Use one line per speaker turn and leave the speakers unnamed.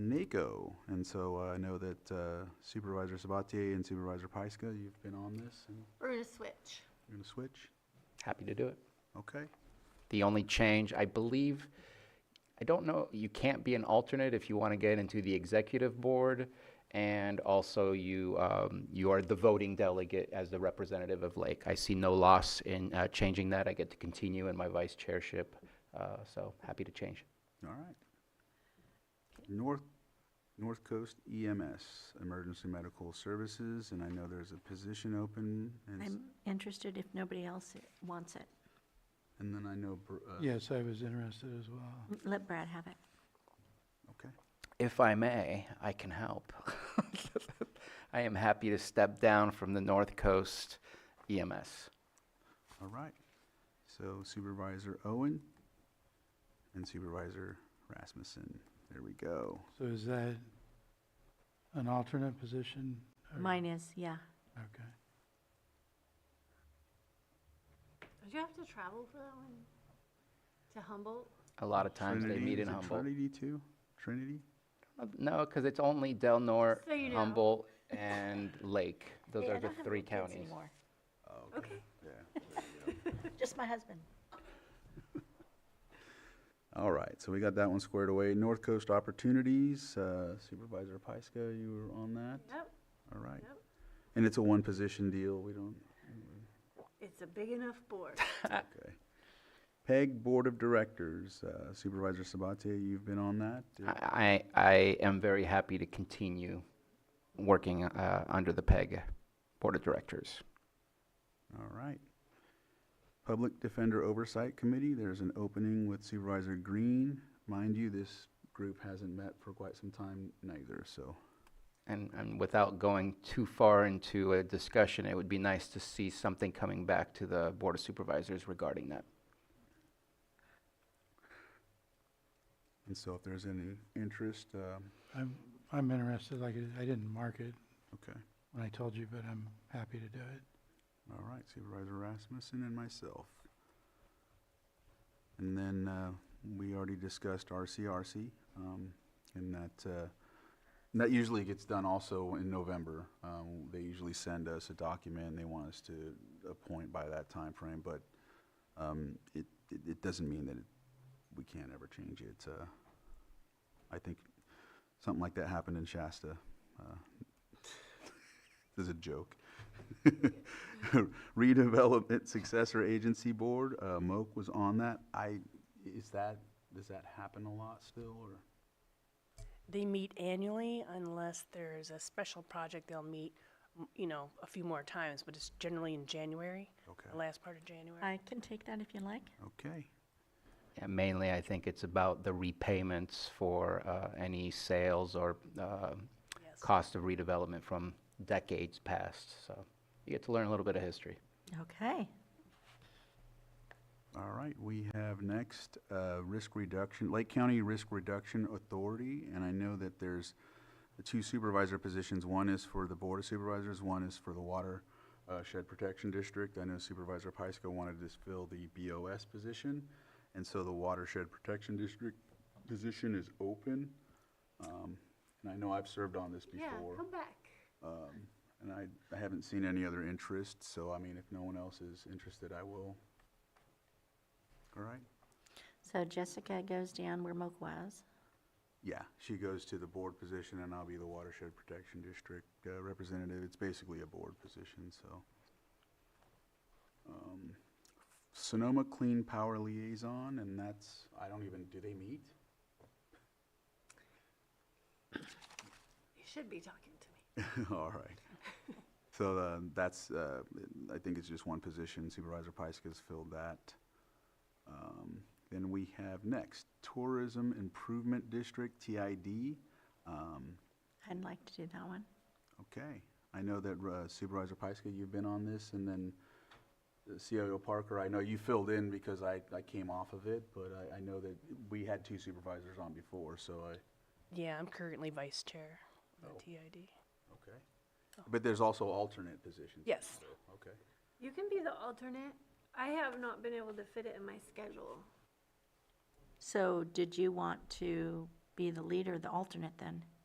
NACO. And so uh, I know that uh, Supervisor Sabatier and Supervisor Pyska, you've been on this and
We're gonna switch.
you're going to switch?
Happy to do it.
Okay.
The only change, I believe, I don't know, you can't be an alternate if you want to get into the executive board. And also you, um, you are the voting delegate as the representative of Lake. I see no loss in, uh, changing that. I get to continue in my vice chairship, uh, so happy to change.
All right. North, North Coast EMS, Emergency Medical Services, and I know there's a position open. And, s-
I'm interested if nobody else wants it.
and then I know, Br- uh,
Yes, I was interested as well.
Let Brad have it.
okay.
If I may, I can help. I am happy to step down from the North Coast E EMS.
All right. So Supervisor Owen and Supervisor Rasmussen. There we go.
So is that an alternate position? or-
Mine is, yeah.
Okay.
Did you have to travel for that one? To Humboldt?
A lot of times they
Trinity-
meet in
is it
Humboldt.
Trinity too? Trinity?
Uh, No, because it's only Del Norte,
So you know.
Humboldt, and Lake. Those
Hey, I
are the
don't have
three
any kids
counties.
anymore.
Okay.
Oh, Yeah.
Just my husband.
All right, so we got that one squared away. North Coast Opportunities, uh, Supervisor Pyska, you were on that?
Yep,
All right.
Yep.
And it's a one-position deal, we don't,
it's a big enough board.
okay. PEG Board of Directors, uh, Supervisor Sabatier, you've been on that?
I, I I am very happy to continue working uh, under the PEG Board of Directors.
All right. Public Defender Oversight Committee, there's an opening with Supervisor Green. Mind you, this group hasn't met for quite some time neither, so.
And, and without going too far into a discussion, it would be nice to see something coming back to the Board of Supervisors regarding that.
And so if there's any interest, um,
I'm, I'm interested, like, I didn't mark it
okay.
when I told you, but I'm happy to do it.
All right, Supervisor Rasmussen and myself. And then, uh, we already discussed RCRC, um, and that, uh, and that usually gets done also in November. Um, they usually send us a document, and they want us to appoint by that time frame. but, um, it, it, it doesn't mean that it, we can't ever change it, uh, I think something like that happened in Shasta, uh, this is a joke. Redevelopment Successor Agency Board, uh, Moak was on that. I, is that, does that happen a lot still, or?
They meet annually unless there's a special project, they'll meet, m- you know, a few more times, but it's generally in January, the
Okay.
last part of January.
I can take that if you like.
Okay,
Yeah, mainly, I think it's about the repayments for uh, any sales or uh,
Yes.
cost of redevelopment from decades past. So you get to learn a little bit of history.
Okay.
all right. We have next, uh, Risk Reduction, Lake County Risk Reduction Authority, and I know that there's the two supervisor positions. One is for the Board of Supervisors, one is for the Water uh, Shed Protection District. I know Supervisor Pyska wanted to fill the BOS position, and so the Watershed Protection District position is open. Um, And I know I've served on this
Yeah,
before.
come back.
Um, And I, I haven't seen any other interest, so I mean, if no one else is interested, I will. All right?
So Jessica goes down where Moak was.
Yeah, she goes to the board position and I'll be the watershed protection district uh, representative. It's basically a board position, so. Um, Sonoma Clean Power Liaison, and that's, I don't even, do they meet?
You should be talking to me.
All right. So uh, that's, uh, I think it's just one position. Supervisor Pyska's filled that. Um, Then we have next, Tourism Improvement District, TID. Um,
I'd like to do that one.
Okay, I know that uh, Supervisor Pyska, you've been on this, and then uh, CIO Parker, I know you filled in because I, I came off of it, but I, I know that we had two supervisors on before, so I,
Yeah, I'm currently vice chair of
Oh.
the TID.
okay. But there's also alternate positions.
Yes.
so, Okay.
You can be the alternate. I have not been able to fit it in my schedule.
So did you want to be the leader, the alternate then.